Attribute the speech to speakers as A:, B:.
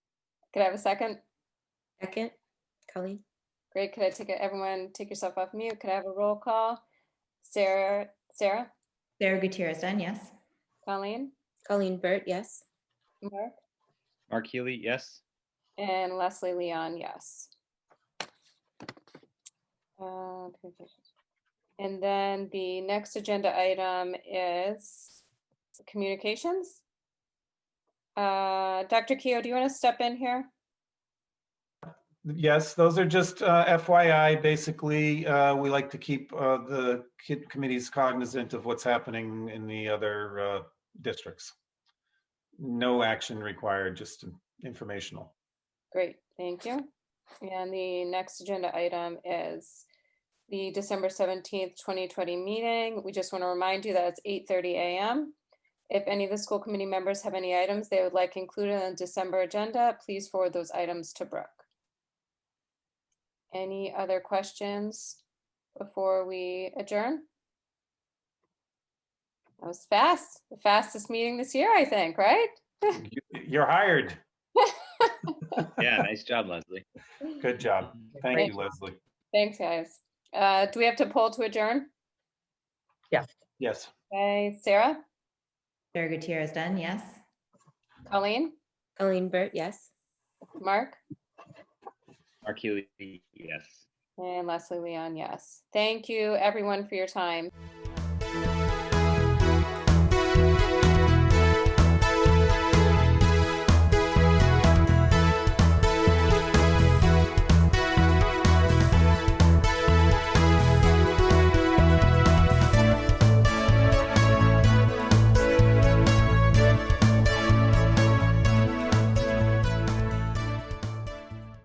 A: Could I have a second?
B: Second, Colleen?
A: Great. Could I take, a- everyone, take yourself off mute? Could I have a roll call? Sarah, Sarah,
C: Sarah Gutierrez Dunn, yes.
A: Colleen,
B: Colleen Burt, yes.
A: Mark,
D: Mark Healy, yes.
A: and Leslie Leon, yes. Uh, And then the next agenda item is communications. Uh, Dr. Keo, do you want to step in here?
E: Yes, those are just uh, FYI. Basically, uh, we like to keep uh, the kid committees cognizant of what's happening in the other uh, districts. No action required, just informational.
A: Great, thank you. And the next agenda item is the December seventeenth, twenty twenty meeting. We just want to remind you that it's eight thirty AM. If any of the school committee members have any items they would like included on the December agenda, please forward those items to Brooke. Any other questions before we adjourn? That was fast, the fastest meeting this year, I think, right?
E: You're hired.
D: Yeah, nice job, Leslie.
E: Good job. Thank
A: Great.
E: you, Leslie.
A: Thanks, guys. Uh, do we have to poll to adjourn?
E: Yes.
A: Okay, Sarah,
C: Sarah Gutierrez Dunn, yes.
A: Colleen,
B: Colleen Burt, yes.
A: Mark,
D: Mark Healy, yes.
A: and Leslie Leon, yes. Thank you, everyone, for your time.